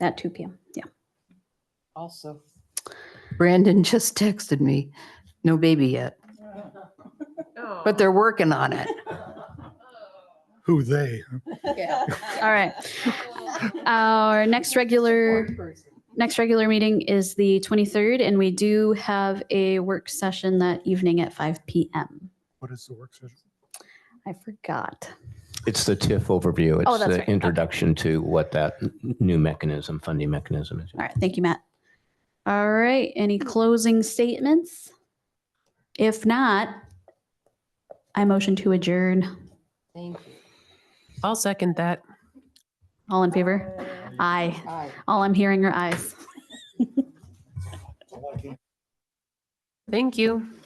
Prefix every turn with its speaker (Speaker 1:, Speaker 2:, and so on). Speaker 1: At two PM, yeah.
Speaker 2: Also.
Speaker 3: Brandon just texted me, no baby yet, but they're working on it.
Speaker 4: Who they?
Speaker 1: All right. Our next regular, next regular meeting is the 23rd, and we do have a work session that evening at five PM.
Speaker 4: What is the work session?
Speaker 1: I forgot.
Speaker 5: It's the TIF overview.
Speaker 1: Oh,
Speaker 5: It's
Speaker 1: that's right.
Speaker 5: the
Speaker 1: Okay.
Speaker 5: introduction to what that n- new mechanism, funding mechanism is.
Speaker 1: All right, thank you, Matt. All right, any closing statements? If not, I motion to adjourn.
Speaker 2: Thank you.
Speaker 6: I'll second that.
Speaker 1: All in favor? Aye.
Speaker 2: Uh, Aye.
Speaker 1: All I'm hearing are ayes.
Speaker 6: Thank you.